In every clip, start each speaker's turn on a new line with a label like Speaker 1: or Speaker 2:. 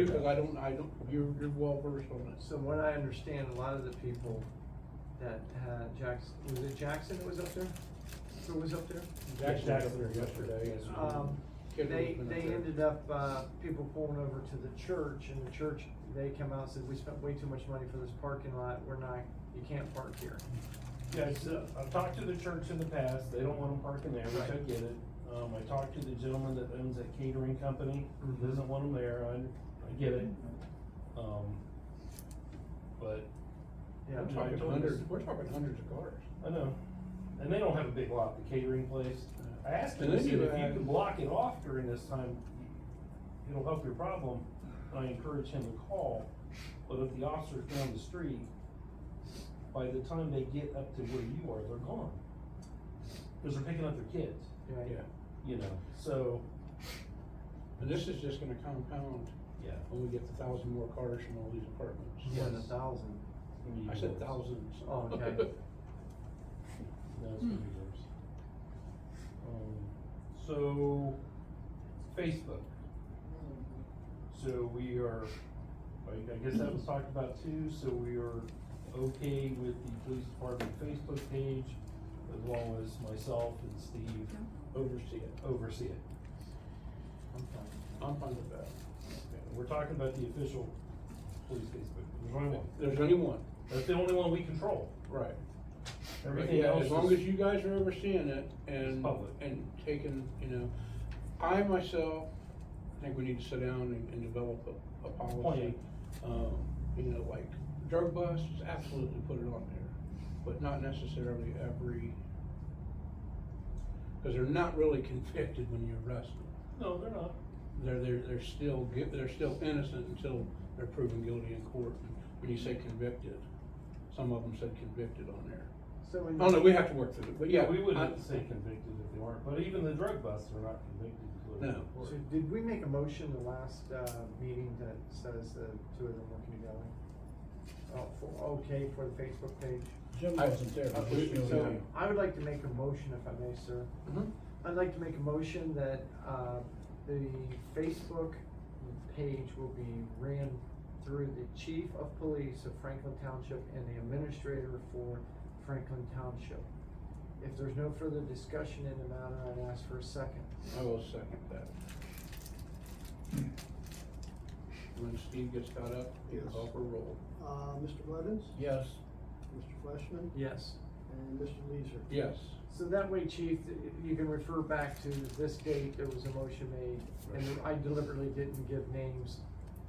Speaker 1: because I don't, I don't, you're, you're well versed on this.
Speaker 2: So what I understand, a lot of the people that had Jackson, was it Jackson that was up there? Who was up there?
Speaker 1: Jackson was up there yesterday and.
Speaker 2: Um,
Speaker 1: Kid was
Speaker 2: they,
Speaker 1: been up
Speaker 2: they
Speaker 1: there.
Speaker 2: ended up, uh, people pulling over to the church and the church, they come out and said, we spent way too much money for this parking lot, we're not, you can't park here.
Speaker 3: Yes, uh, I've talked to the church in the past, they don't want them parking there, which I
Speaker 2: Right.
Speaker 3: get it. Um, I talked to the gentleman that owns that catering company,
Speaker 2: Mhm.
Speaker 3: doesn't want them there, I, I get it. Um, but,
Speaker 2: Yeah,
Speaker 1: We're talking hundreds, we're talking hundreds of cars.
Speaker 3: I know, and they don't have a big lot, the catering place. I asked him,
Speaker 1: And
Speaker 3: I
Speaker 1: then
Speaker 3: said, if
Speaker 1: you
Speaker 3: you
Speaker 1: add-
Speaker 3: can block it off during this time, it'll help your problem. And I encourage him to call, but if the officer's down the street, by the time they get up to where you are, they're gone. Cause they're picking up their kids,
Speaker 2: yeah,
Speaker 1: Yeah,
Speaker 3: you know, so,
Speaker 1: and this is just gonna compound
Speaker 3: yeah.
Speaker 1: when we get the thousand more cars from all these apartments.
Speaker 2: more than a thousand.
Speaker 3: it's gonna be
Speaker 1: I said
Speaker 3: worse.
Speaker 1: thousands.
Speaker 2: Oh, okay.
Speaker 3: No, it's gonna be worse. Um, So, Facebook. So we are, I I guess that was talked about too, so we are okay with the police department Facebook page as well as myself and Steve
Speaker 1: Oversee it.
Speaker 3: oversee it.
Speaker 2: I'm fine.
Speaker 1: I'm fine with that.
Speaker 3: We're talking about the official police Facebook, there's only one.
Speaker 1: There's only one,
Speaker 3: That's the only one we control.
Speaker 1: right.
Speaker 3: Everything
Speaker 1: Yeah,
Speaker 3: else
Speaker 1: As long as
Speaker 3: is,
Speaker 1: you guys are overseeing it and,
Speaker 3: public.
Speaker 1: and taking, you know, I myself think we need to sit down and, and develop a, a policy.
Speaker 3: Plan.
Speaker 1: Um, you know, like drug busts, absolutely put it on there, but not necessarily every, cause they're not really convicted when you arrest them.
Speaker 3: no, they're not.
Speaker 1: They're, they're, they're still, gui- they're still innocent until they're proven guilty in court. When you say convicted, some of them said convicted on there.
Speaker 2: So in.
Speaker 1: Oh, no, we have to work through it, but yeah.
Speaker 3: We
Speaker 1: I-
Speaker 3: wouldn't say convicted if they weren't, but even the drug busts are not convicted. until they're
Speaker 1: No.
Speaker 2: So
Speaker 3: reported.
Speaker 2: did we make a motion the last, uh, meeting that says the two of them working together? Oh, for, okay, for the Facebook page?
Speaker 4: Jim
Speaker 1: I-
Speaker 4: wasn't there.
Speaker 1: I-
Speaker 4: but he knows
Speaker 1: so-
Speaker 4: how.
Speaker 2: I would like to make a motion if I may, sir.
Speaker 1: Mhm.
Speaker 2: I'd like to make a motion that, uh, the Facebook page will be ran through the chief of police of Franklin Township and the administrator for Franklin Township. If there's no further discussion in the matter, I'd ask for a second.
Speaker 1: I will second that. When Steve gets caught up, you
Speaker 5: Yes.
Speaker 1: call for roll.
Speaker 5: Uh, Mr. Blevins?
Speaker 4: Yes,
Speaker 5: Mr. Fleishman?
Speaker 2: Yes.
Speaker 5: And Mr. Leeser?
Speaker 1: Yes,
Speaker 2: So that way, chief, you can refer back to this date, there was a motion made, and I deliberately didn't give names,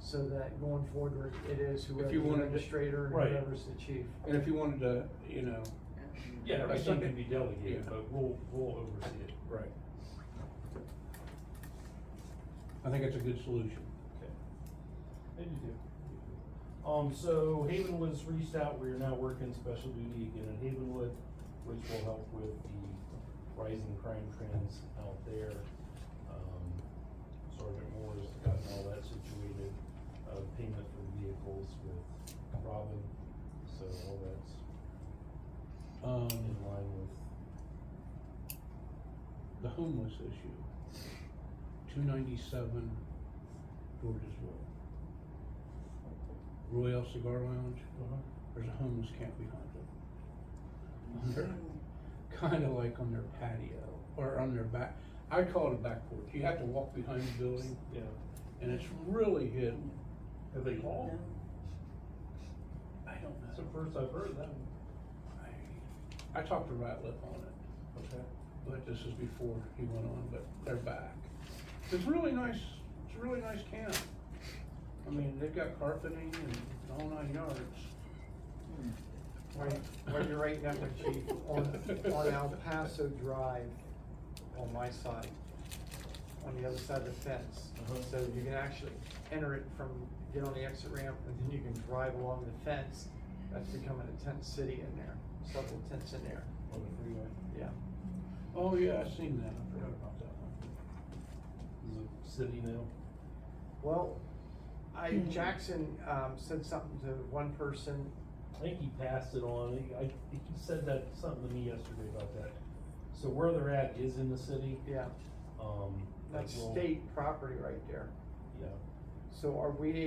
Speaker 2: so that going forward, it is whoever's
Speaker 1: you wanted to-
Speaker 2: administrator and
Speaker 3: Right.
Speaker 2: whoever's the chief.
Speaker 1: and if you wanted to, you know.
Speaker 3: Yeah, everything can be delegated,
Speaker 1: Yeah.
Speaker 3: but we'll, we'll oversee it.
Speaker 1: Right. I think it's a good solution.
Speaker 3: Okay. They do. Um, so Havenwood's reached out, we are now working special duty again in Havenwood, which will help with the rising crime trends out there. Um, Sergeant Moore has gotten all that situated, uh, payment for vehicles with Robin, so all that's
Speaker 1: Um,
Speaker 3: in line with,
Speaker 1: the homeless issue, two ninety-seven Georgesville. Royal Cigar Lounge,
Speaker 3: Uh-huh.
Speaker 1: there's a homeless camp behind it. Kind of like on their patio or on their back, I call it a back porch. You have to walk behind the building
Speaker 3: yeah.
Speaker 1: and it's really hidden.
Speaker 3: Have they called?
Speaker 1: I don't
Speaker 3: That's the
Speaker 1: know.
Speaker 3: first I've heard that.
Speaker 1: I- I talked to Ratliff on it,
Speaker 3: Okay.
Speaker 1: but this is before he went on, but they're back. It's really nice, it's a really nice camp. I mean, they've got carpeting and all nine yards.
Speaker 2: When, when you're right now, Chief, on, on El Paso Drive, on my side, on the other side of the fence.
Speaker 3: Uh-huh.
Speaker 2: So you can actually enter it from, get on the exit ramp, and then you can drive along the fence. That's becoming a tent city in there, several tents in there,
Speaker 3: On the freeway.
Speaker 2: yeah.
Speaker 1: Oh, yeah, I seen that. I forgot about that one.
Speaker 3: Is it city now?
Speaker 2: Well, I, Jackson, um, said something to one person,
Speaker 3: I think he passed it on, He- I, he said that, something to me yesterday about that. So where they're at is in the city,
Speaker 2: yeah,
Speaker 3: um. like,
Speaker 2: that's
Speaker 3: well,
Speaker 2: state property right there.
Speaker 3: Yeah.
Speaker 2: So are we